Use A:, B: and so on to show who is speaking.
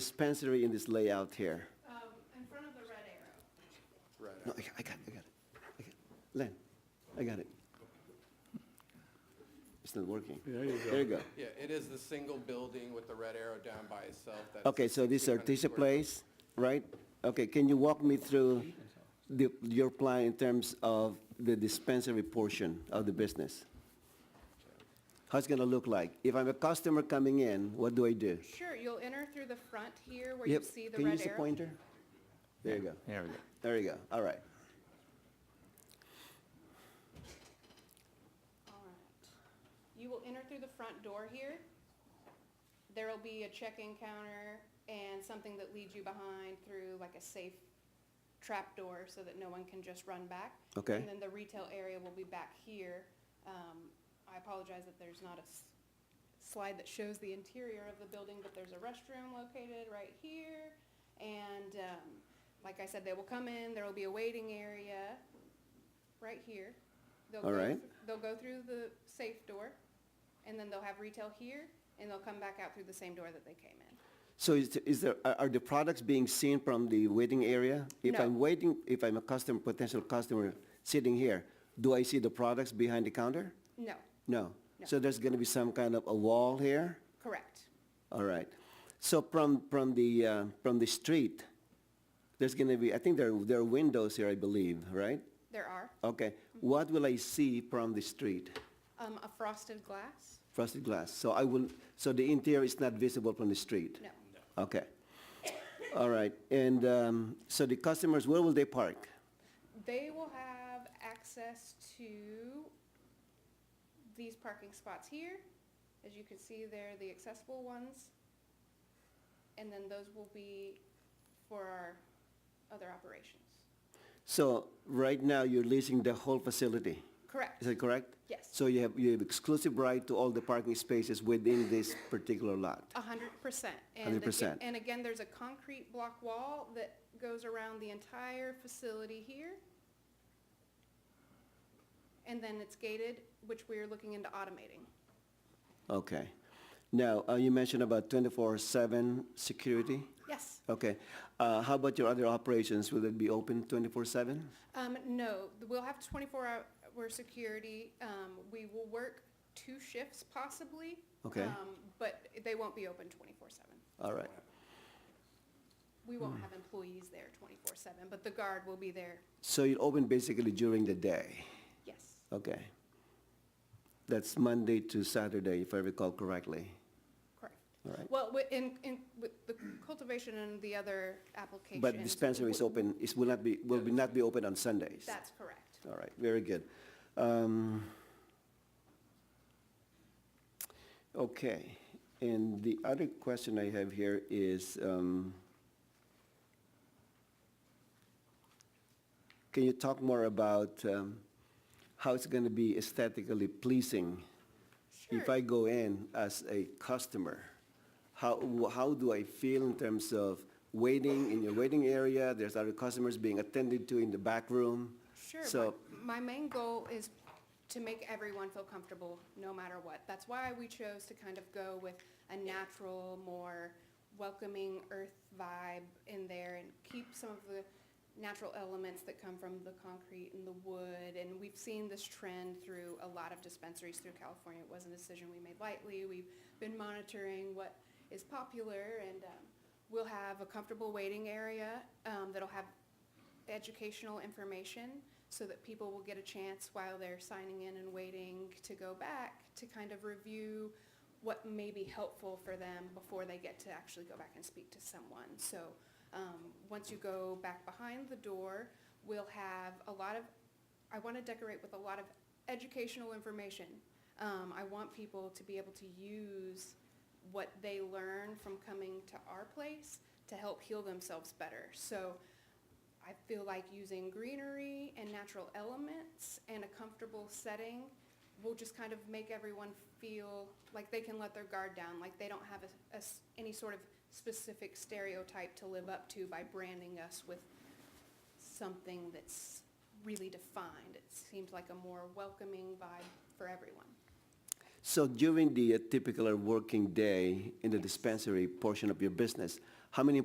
A: dispensary in this layout here?
B: Um, in front of the red arrow.
A: No, I got, I got it, I got it. I got it. Len, I got it. It's not working. There you go. There you go.
C: Yeah, it is the single building with the red arrow down by itself. that's
A: Okay, so this
C: 600
A: Artesia
C: square
A: Place, right? Okay, can you walk me through the, your plan in terms of the dispensary portion of the business? How's it gonna look like? If I'm a customer coming in, what do I do?
B: Sure, you'll enter through the front here where you
A: Yep,
B: see the
A: Can you
B: red
A: use the
B: arrow.
A: pointer? There you go.
D: There we go.
A: There you go, all right.
B: All right. You will enter through the front door here. There'll be a check-in counter and something that leads you behind through like a safe trap door so that no one can just run back.
A: Okay.
B: And then the retail area will be back here. Um, I apologize that there's not a s- slide that shows the interior of the building, but there's a restroom located right here. And, um, like I said, they will come in, there will be a waiting area right here. They'll
A: All
B: go
A: right.
B: th- They'll go through the safe door, and then they'll have retail here, and they'll come back out through the same door that they came in.
A: So is, is there, are are the products being seen from the waiting area? If
B: No.
A: I'm waiting, if I'm a customer, potential customer sitting here, do I see the products behind the counter?
B: No,
A: No.
B: No.
A: So there's going to be some kind of a wall here?
B: correct.
A: All right. So from, from the, uh, from the street, there's going to be, I think there, there are windows here, I believe, right?
B: There are
A: Okay. What will I see from the street?
B: um, a frosted glass.
A: Frosted glass. So I will, so the interior is not visible from the street?
B: No,
A: Okay. All right, and um, so the customers, where will they park?
B: they will have access to these parking spots here. As you can see, they're the accessible ones, and then those will be for our other operations.
A: So right now, you're leasing the whole facility,
B: Correct.
A: is that correct?
B: Yes.
A: So you have, you have exclusive right to all the parking spaces within this particular lot?
B: A hundred percent. And
A: Hundred
B: again-
A: percent.
B: And again, there's a concrete block wall that goes around the entire facility here. And then it's gated, which we are looking into automating.
A: Okay. Now, uh, you mentioned about 24/7 security?
B: Yes.
A: Okay. Uh, How about your other operations? Will it be open 24/7?
B: Um, no, we'll have twenty-four hour security. Um, we will work two shifts possibly.
A: Okay.
B: um, But they won't be open twenty-four seven.
A: All right,
B: We won't
A: Hmm.
B: have employees there twenty-four seven, but the guard will be there.
A: so you're open basically during the day?
B: Yes,
A: Okay. That's Monday to Saturday, if I recall correctly.
B: correct.
A: All right.
B: Well, wi- in, in, with the cultivation and the other applications.
A: But dispensary is
B: w-
A: open, it will not be, will be not be open on Sundays?
B: That's correct.
A: All right, very good. Um, Okay, and the other question I have here is, um, can you talk more about um, how it's going to be aesthetically pleasing? If
B: Sure.
A: I go in as a customer, how, wh- how do I feel in terms of waiting in your waiting area? There's other customers being attended to in the back room.
B: Sure.
A: So,
B: My my main goal is to make everyone feel comfortable, no matter what. That's why we chose to kind of go with a natural, more welcoming earth vibe in there and keep some of the natural elements that come from the concrete and the wood. And we've seen this trend through a lot of dispensaries through California. It wasn't a decision we made lightly. We've been monitoring what is popular and um, we'll have a comfortable waiting area um, that'll have educational information so that people will get a chance while they're signing in and waiting to go back to kind of review what may be helpful for them before they get to actually go back and speak to someone. So um, once you go back behind the door, we'll have a lot of, I want to decorate with a lot of educational information. Um, I want people to be able to use what they learn from coming to our place to help heal themselves better. So I feel like using greenery and natural elements and a comfortable setting will just kind of make everyone feel like they can let their guard down, like they don't have a- a s- any sort of specific stereotype to live up to by branding us with something that's really defined. It seems like a more welcoming vibe for everyone.
A: so during the uh, typical working day in the dispensary portion of your business, How many